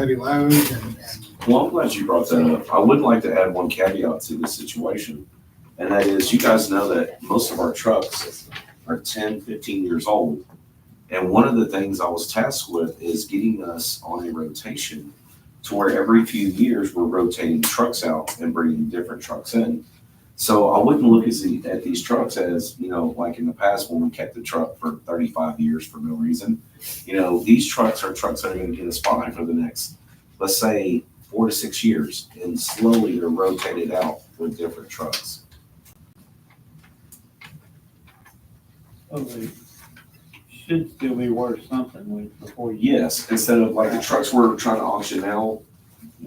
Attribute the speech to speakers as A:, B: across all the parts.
A: heavy loads and, and
B: Well, I'm glad you brought that up. I would like to add one caveat to this situation. And that is, you guys know that most of our trucks are 10, 15 years old. And one of the things I was tasked with is getting us on a rotation to where every few years we're rotating trucks out and bringing different trucks in. So I wouldn't look at, the, at these trucks as, you know, like in the past when we kept the truck for 35 years for no reason. You know, these trucks are trucks that are going to get us by for the next, let's say, four to six years, and slowly they're rotated out with different trucks.
C: So Oh, they should still be worth something when, before you.
B: Yes, instead of like the trucks we're trying to auction now,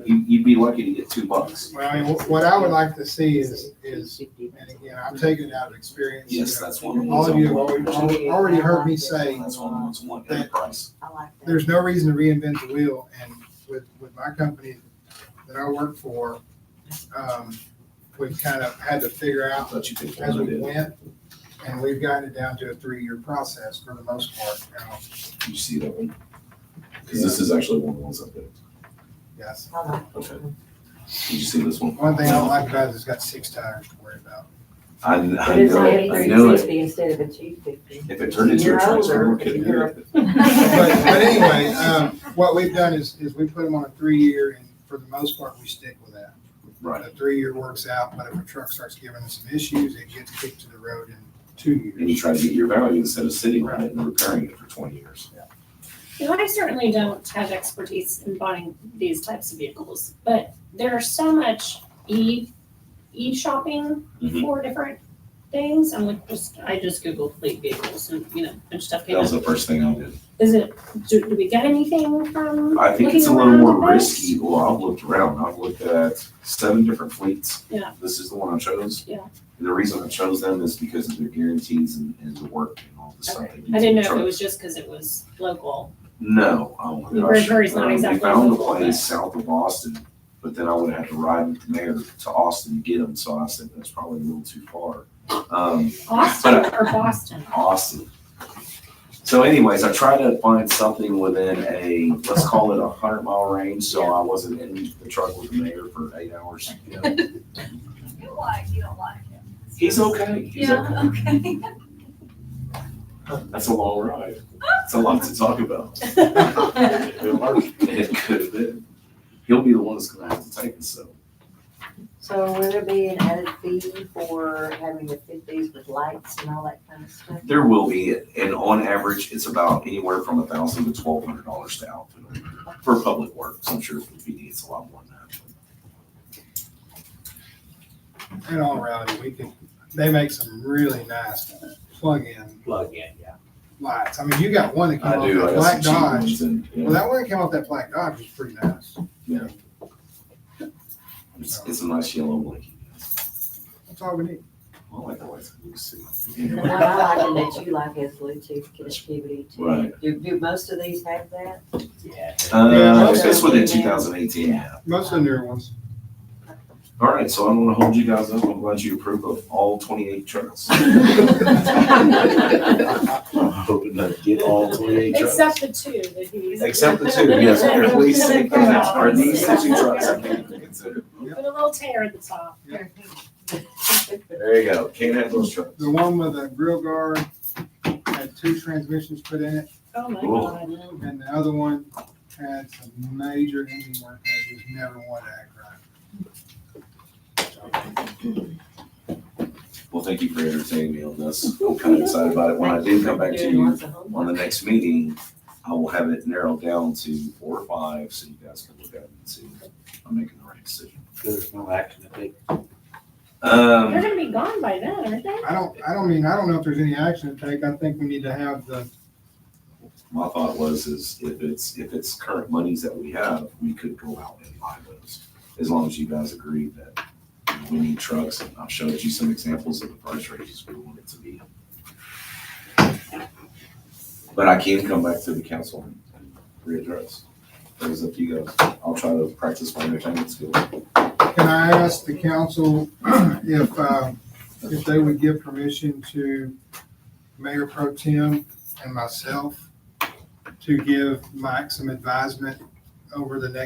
B: you, you'd be lucky to get two bucks.
A: Well, I mean, wh- what I would like to see is, is, and again, I'm taking it out of experience. you
B: Yes,
A: know,
B: that's one of the
A: All
B: ones.
A: of you have
B: I'm
A: already,
B: wanting to
A: al- already heard me say,
B: mention. That's one of the ones I want, and the price.
D: I like that.
A: there's no reason to reinvent the wheel, and with, with my company that I work for, um, we've kind of had to figure
B: I
A: out
B: thought you could.
A: as we went, and we've gotten it down to a three-year process for the most part now,
B: You see that one? Because this is actually one of the ones I did.
A: yes.
D: I like
B: Okay. Did you see this one?
A: One thing I don't like about it is it's got six tires to worry about.
B: I, kn- I
D: But it's
B: know, it.
D: only
B: I
D: three
B: know it.
D: fifty instead of a two fifty.
B: If it turned into a
D: You're
B: transfer,
D: older.
B: we could do
D: You're-
B: it.
A: But, but anyway, um, what we've done is, is we put them on a three-year, and for the most part, we stick with that.
B: Right,
A: The three-year works out, but if a truck starts giving us some issues, it gets kicked to the road in two
B: and you
A: years.
B: try to get your value instead of sitting on it and repairing it for twenty years.
E: You know, I certainly don't have expertise in buying these types of vehicles, but there's so much e, e-shopping
B: Mhm.
E: for different things. I'm like, just, I just Googled fleet vehicles and, you know, a bunch of stuff
B: That
E: came
B: was
E: up.
B: the first thing I did.
E: Is it, do, do we get anything from?
B: I think it's a
E: looking
B: little
E: around
B: more
E: the best?
B: risky. Well, I've looked around. I've looked at seven different fleets.
E: Yeah.
B: This is the one I chose.
E: Yeah.
B: And the reason I chose them is because of their guarantees and, and the work and all the stuff they do.
E: I
B: to
E: didn't
B: the
E: know if it
B: truck.
E: was just because it was local.
B: No, oh my gosh.
E: Bridgewater's not
B: Um,
E: exactly
B: We found a
E: local, but-
B: place south of Austin, but then I would have to ride with the mayor to Austin to get them, so I said that's probably a little too far. Um,
E: Austin or Boston?
B: Austin. So anyways, I tried to find something within a, let's call it a hundred mile range, so I wasn't in the truck with the mayor for eight hours. you know.
F: You like, you don't like him.
B: He's okay, he's okay.
F: okay.
B: That's a long ride. It's a lot to talk about. It could work, it could have been. He'll be the one that's gonna have to take it, so.
D: So will there be an added fee for having to fit these with lights and all that kind of stuff?
B: There will be, and on average, it's about anywhere from a thousand to twelve hundred dollars to outfit them for public works. I'm sure if he needs a lot more than that.
A: In all reality, we can, they make some really nice plug-in
G: plug in, yeah.
A: lights. I mean, you got one that came
B: I
A: off
B: do,
A: that
B: I got some
A: black
B: cheap
A: Dodge.
B: ones and, yeah.
A: Well, that one that came off that black Dodge was pretty nice.
B: Yeah. It's, it's a nice yellow blinky.
A: That's all we need.
B: I like the lights blue suit.
D: The one I like and that you like is Bluetooth connectivity too.
B: Right.
D: Do, do most of these have that?
G: Yeah.
B: Uh,
A: Yeah.
B: it's within two thousand eighteen, yeah.
A: Most of the newer ones.
B: All right, so I'm gonna hold you guys up. I'm glad you approve of all twenty-eight trucks. I'm hoping to get all twenty-eight
E: Except the two that he's.
B: Except the two, yes, they're at least, are these the two trucks I can't even consider?
E: With a little tear at the top.
B: There you go, can't have those trucks.
A: The one with the grill guard had two transmissions put in it,
E: Oh my
B: Cool.
E: God.
A: and the other one had some major engine work that it just never wanted to act right.
B: Well, thank you for entertaining me on this. I'm kind of excited about it. When I do come back to
D: Doing
B: you,
D: lots of homework.
B: on the next meeting, I will have it narrowed down to four or five, so you guys can look at it and see if I'm making the right decision.
G: There's no action to take.
E: They're
B: Um,
E: gonna be gone by then, aren't they?
A: I don't, I don't mean, I don't know if there's any action to take. I think we need to have the,
B: my thought was is if it's, if it's current monies that we have, we could go out and buy those. As long as you guys agree that we need trucks, and I've showed you some examples of the price ranges we want it to be. But I can come back to the council and readdress. It was up to you guys. I'll try to practice my entertainment skills.
A: can I ask the council if, um, if they would give permission to Mayor Pro Tem and myself to give Mike some advisement over the next